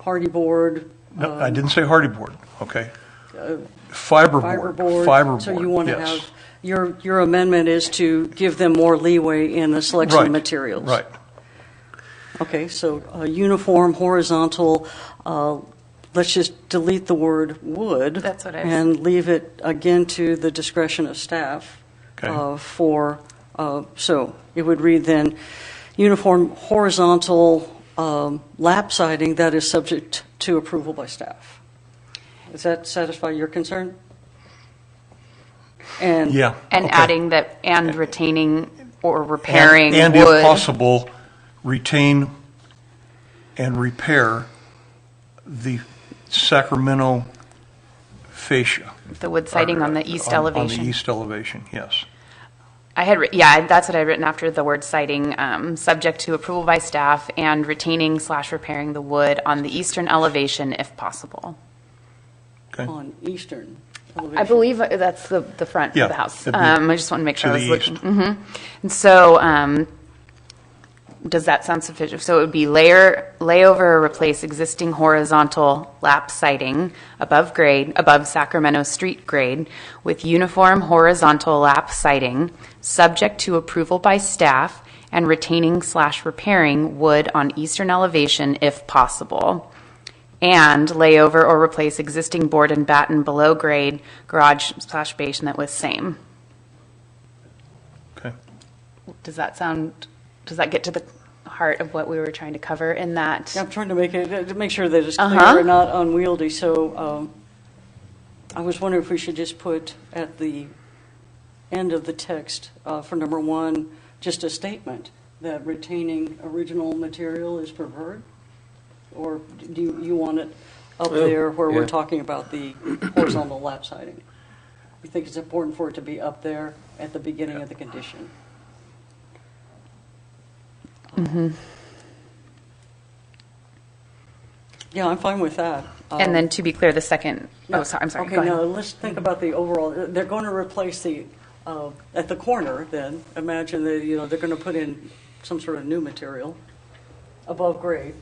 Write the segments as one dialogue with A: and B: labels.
A: hardy board,
B: No, I didn't say hardy board, okay?
A: fiber
B: Fiberboard.
A: board.
B: Fiberboard,
A: Uh, So you want to
B: yes.
A: have, your, your amendment is to give them more leeway in the selection of
B: Right,
A: materials.
B: Right,
A: Okay, so uh, uniform, horizontal, uh, let's just delete the word would.
C: That's what I was-
A: And leave it again to the discretion of staff.
B: Okay.
A: uh, For, uh, so it would read then, uniform horizontal um, lap siding that is subject to approval by staff. Does that satisfy your concern? And.
B: yeah.
C: And
B: okay.
C: adding that, and retaining or
B: And-
C: repairing wood.
B: And if possible, retain and repair the Sacramento fascia.
C: The wood siding on the east elevation.
B: On the east elevation, yes.
C: I had, writ- yeah, that's what I had written after the word citing, um, subject to approval by staff and retaining slash repairing the wood on the eastern elevation if possible.
B: Okay.
A: On eastern
C: I
A: elevation.
C: believe that's the, the front
B: Yeah,
C: of the house.
B: that'd be
C: Um, I just want to make
B: to
C: sure I
B: the
C: was looking.
B: east.
C: Mhm. And so, um, does that sound sufficient? So it would be layer, layover or replace existing horizontal lap siding above grade, above Sacramento street grade with uniform horizontal lap siding, subject to approval by staff and retaining slash repairing wood on eastern elevation if possible. And lay over or replace existing board and batten below grade garage slash basement with same.
B: Okay.
C: Does that sound, does that get to the heart of what we were trying to cover in that?
A: Yeah, I'm trying to make it, to make sure that it's
C: Uh-huh.
A: clear and not unwieldy, so um, I was wondering if we should just put at the end of the text uh, for number one, just a statement that retaining original material is preferred? Or do you- you want it up there where
D: yeah.
A: we're talking about the horizontal lap siding? You think it's important for it to be up there at the beginning of the condition? Yeah, I'm fine with that. Um,
C: And then to be clear, the second, oh, sorry, I'm sorry, go
A: Uh, Okay, now,
C: ahead.
A: let's think about the overall, they're going to replace the, uh, at the corner then, imagine that, you know, they're going to put in some sort of new material above grade.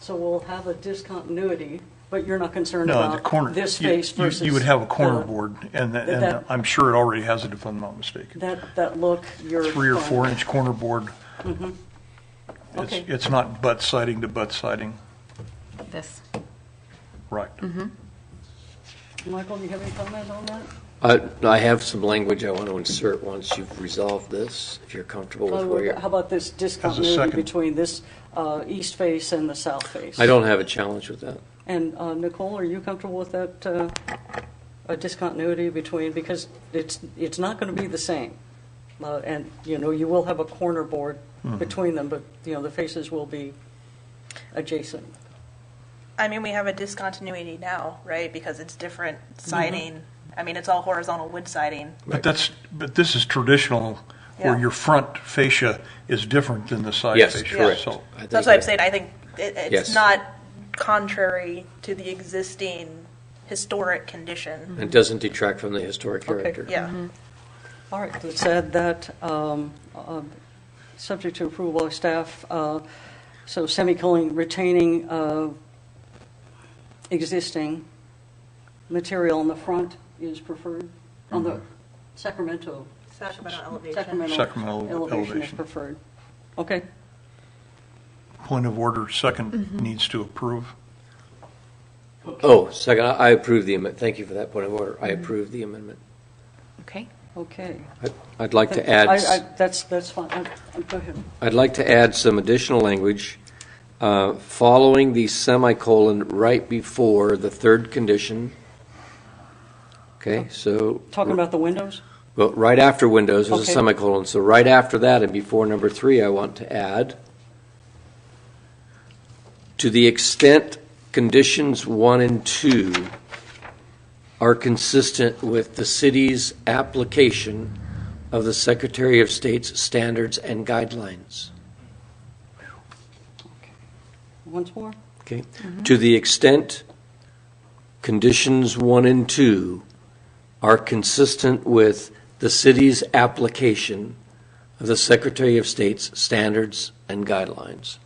A: So we'll have a discontinuity, but you're not concerned
B: No, the corner.
A: about this
B: you-
A: face
B: you-
A: versus.
B: You would have a corner
A: the-
B: board, and, that-
A: that-
B: and I'm sure it already has it if I'm not mistaken.
A: That, that look, you're.
B: Three or
A: fine.
B: four inch corner board. It's,
A: Okay.
B: it's not butt siding to butt siding,
C: This,
B: right.
A: Michael, do you have any comment on that?
D: I, I have some language I want to insert once you've resolved this, if you're comfortable
E: Oh,
D: with where
A: Uh, How
D: you're.
A: about this discontinuity
B: second.
A: between this uh, east face and the south face?
D: I don't have a challenge with that.
A: And uh, Nicole, are you comfortable with that uh, a discontinuity between, because it's, it's not going to be the same. Uh, And, you know, you will have a corner board between them, but, you know, the faces will be adjacent.
E: I mean, we have a discontinuity now, right? Because it's different siding. I mean, it's all horizontal wood siding.
B: But that's, but this is traditional, where
E: Yeah.
B: your front fascia is different than the side
D: Yes,
B: fascia.
D: correct.
B: so-
D: I think
E: That's what I'm
D: that-
E: saying. I think it, it's
D: Yes.
E: not contrary to the existing historic condition.
D: It doesn't detract from the historic character.
E: Yeah.
A: All right, let's add that, um, uh, subject to approval of staff, uh, so semicolon retaining uh, existing material on the front is preferred, on the Sacramento
E: Sacramento elevation.
B: Sacramento
A: Sacramento elevation is
B: elevation.
A: preferred. Okay,
B: Point of order, second needs to approve.
D: Oh, second, I I approve the amendment. Thank you for that point of order.
E: Mm-hmm.
D: I approve the amendment.
C: okay.
A: okay.
D: I- I'd like to
A: I-
D: add,
A: I- That's, that's fine, I- I- go ahead.
D: I'd like to add some additional language. uh, Following the semicolon right before the third condition. Okay, so.
A: Talking about the windows?
D: Well, right after windows is a
A: Okay.
D: semicolon, so right after that and before number three, I want to add, to the extent conditions one and two are consistent with the city's application of the Secretary of State's standards and guidelines.
A: Once more?
D: Okay? To the extent conditions one and two are consistent with the city's application of the Secretary of State's standards and guidelines.